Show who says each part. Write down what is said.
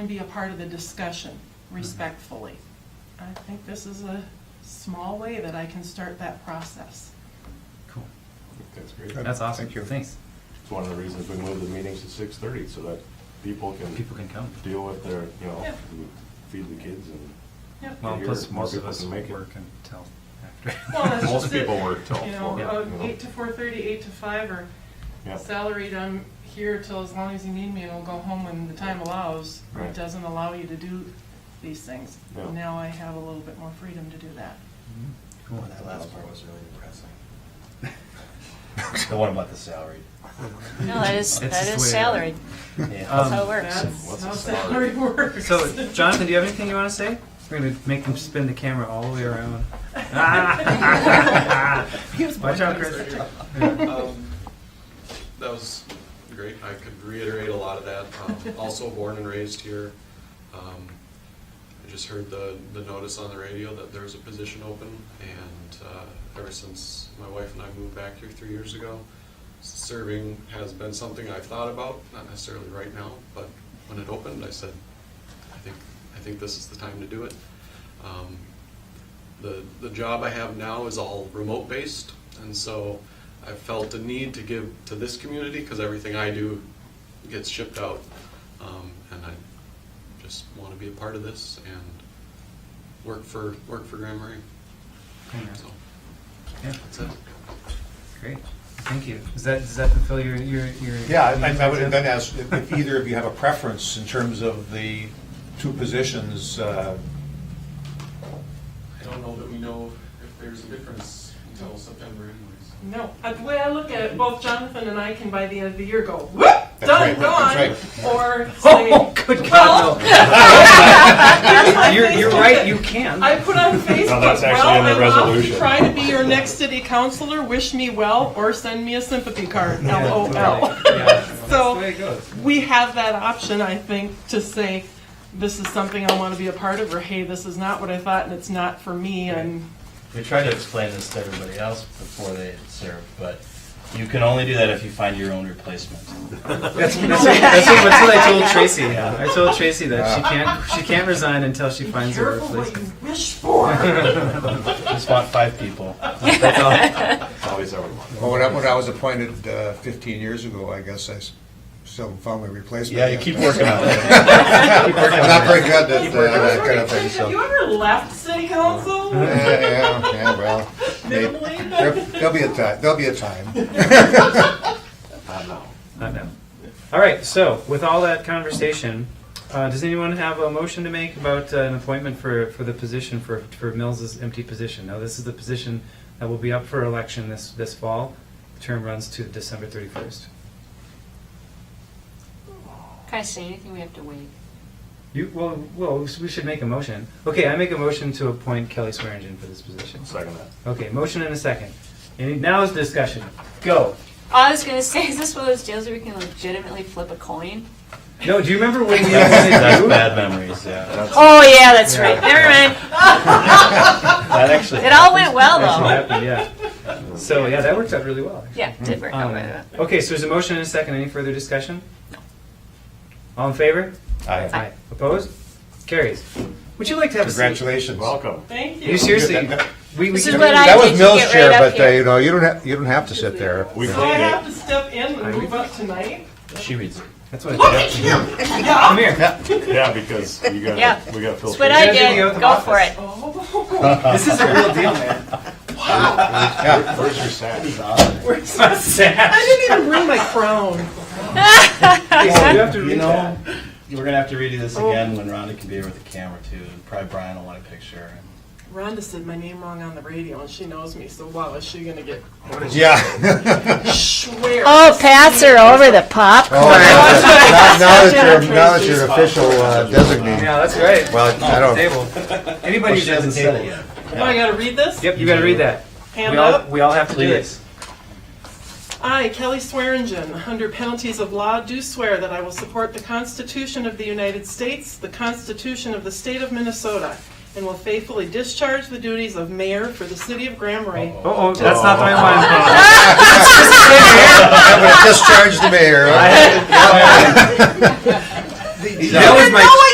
Speaker 1: and be a part of the discussion
Speaker 2: Mm-hmm.
Speaker 1: respectfully. I think this is a small way that I can start that process.
Speaker 3: Cool.
Speaker 2: That's great.
Speaker 4: Good.
Speaker 2: It's
Speaker 3: That's awesome.
Speaker 4: Thank you.
Speaker 3: Thanks.
Speaker 2: one of the reasons we moved the meetings to six thirty, so that people can
Speaker 3: People can come.
Speaker 2: deal with their, you know,
Speaker 1: Yeah.
Speaker 2: feed the kids and.
Speaker 1: Yep.
Speaker 3: Well,
Speaker 2: Here,
Speaker 3: plus
Speaker 2: more
Speaker 3: most of
Speaker 2: people
Speaker 3: us
Speaker 2: can make it.
Speaker 3: work until after.
Speaker 1: Well, that's
Speaker 2: Most
Speaker 1: just it.
Speaker 2: people work till
Speaker 1: You know,
Speaker 2: four,
Speaker 1: uh,
Speaker 2: you know.
Speaker 1: eight to four thirty, eight to five, or
Speaker 2: Yeah.
Speaker 1: salaried, I'm here till as long as you need me, and I'll go home when the time allows, or it
Speaker 2: Right.
Speaker 1: doesn't allow you to do these things.
Speaker 2: Yeah.
Speaker 1: Now I have a little bit more freedom to do that.
Speaker 3: Mhm. Cool.
Speaker 5: Well, Oh, that last part was really depressing. The one about the salary.
Speaker 6: No, that is,
Speaker 3: That's
Speaker 6: that
Speaker 3: just the
Speaker 6: is
Speaker 3: way it-
Speaker 6: salaried.
Speaker 5: Yeah.
Speaker 3: Um,
Speaker 6: That's how it works.
Speaker 1: That's
Speaker 2: What's
Speaker 1: how
Speaker 2: a
Speaker 1: salary
Speaker 2: salary?
Speaker 1: works.
Speaker 3: So, Jonathan, do you have anything you want to say? We're gonna make them spin the camera all the way around. Watch out, Chris.
Speaker 7: Um, That was great. I could reiterate a lot of that. Um, Also born and raised here. Um, I just heard the, the notice on the radio that there was a position open, and uh, ever since my wife and I moved back here three years ago, serving has been something I've thought about, not necessarily right now, but when it opened, I said, I think, I think this is the time to do it. Um, the, the job I have now is all remote based, and so I felt a need to give to this community because everything I do gets shipped out, um, and I just want to be a part of this and work for work for Grand Marais. So
Speaker 3: Yeah,
Speaker 7: that's it.
Speaker 3: great. Thank you. Does that does that fulfill your your your?
Speaker 5: Yeah, I, I would have then asked if if either of you have a preference in terms of the two positions, uh,
Speaker 7: I don't know that we know if there's a difference until September, anyways.
Speaker 1: No, uh, the way I look at it, both Jonathan and I can by the end of the year go, whoop,
Speaker 5: That's
Speaker 1: done,
Speaker 5: right,
Speaker 1: gone,
Speaker 5: that's
Speaker 1: or say,
Speaker 3: Good God,
Speaker 1: here's
Speaker 3: no.
Speaker 1: my
Speaker 3: You're you're
Speaker 1: Facebook
Speaker 3: right. You can.
Speaker 1: I put on Facebook,
Speaker 2: No, that's actually
Speaker 1: well,
Speaker 2: in the
Speaker 1: I'm off to
Speaker 2: resolution."
Speaker 1: try to be your next city councilor, wish me well, or send me a sympathy card,
Speaker 3: Yeah,
Speaker 1: LOL.
Speaker 3: totally. Yeah, that's the
Speaker 1: So-
Speaker 3: way it goes.
Speaker 1: We have that option, I think, to say, this is something I want to be a part of, or hey, this is not what I thought and it's not for me, and
Speaker 5: We tried to explain this to everybody else before they served, but you can only do that if you find your own replacement.
Speaker 3: That's, that's, what, that's, what, that's what I told Tracy. I told Tracy that she can't she can't resign until she finds her
Speaker 1: careful what
Speaker 3: replacement.
Speaker 1: you wish for.
Speaker 5: Just want five people.
Speaker 2: It's always everyone.
Speaker 8: Well, when I, when I was appointed uh, 15 years ago, I guess I s- still found my replacement.
Speaker 5: Yeah, you keep working on it.
Speaker 8: I'm not very good at uh, that kind of thing, so.
Speaker 1: Have you ever left city council?
Speaker 8: Yeah, yeah, yeah, well, may-
Speaker 1: Minimally?
Speaker 8: there- there'll be a time, there'll be a time.
Speaker 2: Not now.
Speaker 3: I know. All right. So with all that conversation, uh, does anyone have a motion to make about uh, an appointment for, for the position for for Mills's empty position? Now this is the position that will be up for election this this fall. The term runs to December thirty first.
Speaker 6: Can I say anything? We have to wait.
Speaker 3: You well well we should make a motion. Okay, I make a motion to appoint Kelly Swearingen for this position.
Speaker 2: Second that.
Speaker 3: Okay, motion and a second. Any, now is discussion. Go.
Speaker 6: I was gonna say, is this one of those deals where we can legitimately flip a coin?
Speaker 3: No, do you remember when we
Speaker 5: That's
Speaker 3: appointed you?
Speaker 5: bad memories, yeah.
Speaker 6: Oh, yeah, that's right. Never mind.
Speaker 5: That actually.
Speaker 6: It all went well,
Speaker 3: Actually
Speaker 6: though.
Speaker 3: happened, yeah. So, yeah, that worked out really well.
Speaker 6: Yeah, it did work out. by the way.
Speaker 3: Um, Okay, so there's a motion and a second. Any further discussion? All in favor?
Speaker 5: Aye.
Speaker 3: Aye. Opposed? Carries. Would you like to have a seat?
Speaker 8: Congratulations.
Speaker 2: Welcome.
Speaker 1: Thank
Speaker 3: You
Speaker 1: you.
Speaker 3: seriously, we, we.
Speaker 6: This is
Speaker 3: can-
Speaker 6: what I
Speaker 8: That was
Speaker 6: did to
Speaker 8: Mill's
Speaker 6: get
Speaker 8: chair,
Speaker 6: right up
Speaker 8: but, uh,
Speaker 6: here.
Speaker 8: you know, you don't have, you don't have to sit there.
Speaker 2: We
Speaker 1: So I
Speaker 2: create,
Speaker 1: have to step in and move up tonight?
Speaker 5: She reads it.
Speaker 3: That's what I did. Come here.
Speaker 2: yeah, because you
Speaker 6: Yeah.
Speaker 2: got, we got
Speaker 6: That's what
Speaker 2: filters.
Speaker 6: I
Speaker 3: You gotta go to
Speaker 6: did.
Speaker 3: the
Speaker 6: Go for
Speaker 3: office.
Speaker 6: it.
Speaker 1: Oh,
Speaker 3: This is a real deal, man.
Speaker 2: Where's your sack?
Speaker 3: It's not sad.
Speaker 1: I didn't even bring my crown.
Speaker 3: You have to
Speaker 8: You
Speaker 3: read
Speaker 8: know,
Speaker 3: that. Oh.
Speaker 8: we're gonna have to redo this
Speaker 5: Again, when Rhonda can be here with the camera too, and probably Brian will want a picture.
Speaker 1: Rhonda said my name wrong on the radio, and she knows me, so wow, is she gonna get
Speaker 8: Yeah.
Speaker 1: swear?
Speaker 6: Oh, Pats are over the
Speaker 8: Oh,
Speaker 6: popcorn.
Speaker 8: Now now that you're, now that you're official uh, designee,
Speaker 3: Yeah, that's right.
Speaker 8: well, I don't.
Speaker 3: Table. Anybody who's at the table.
Speaker 1: Oh, I gotta read this?
Speaker 3: Yep, you gotta read that.
Speaker 1: Hand
Speaker 3: We all,
Speaker 1: up.
Speaker 3: we all have to do
Speaker 5: Please.
Speaker 3: this.
Speaker 1: I, Kelly Swearingen, under penalties of law, do swear that I will support the Constitution of the United States, the Constitution of the State of Minnesota, and will faithfully discharge the duties of mayor for the city of Grand Marais.
Speaker 3: Oh, that's not the way I want
Speaker 8: I'm gonna discharge the mayor.
Speaker 3: That was my,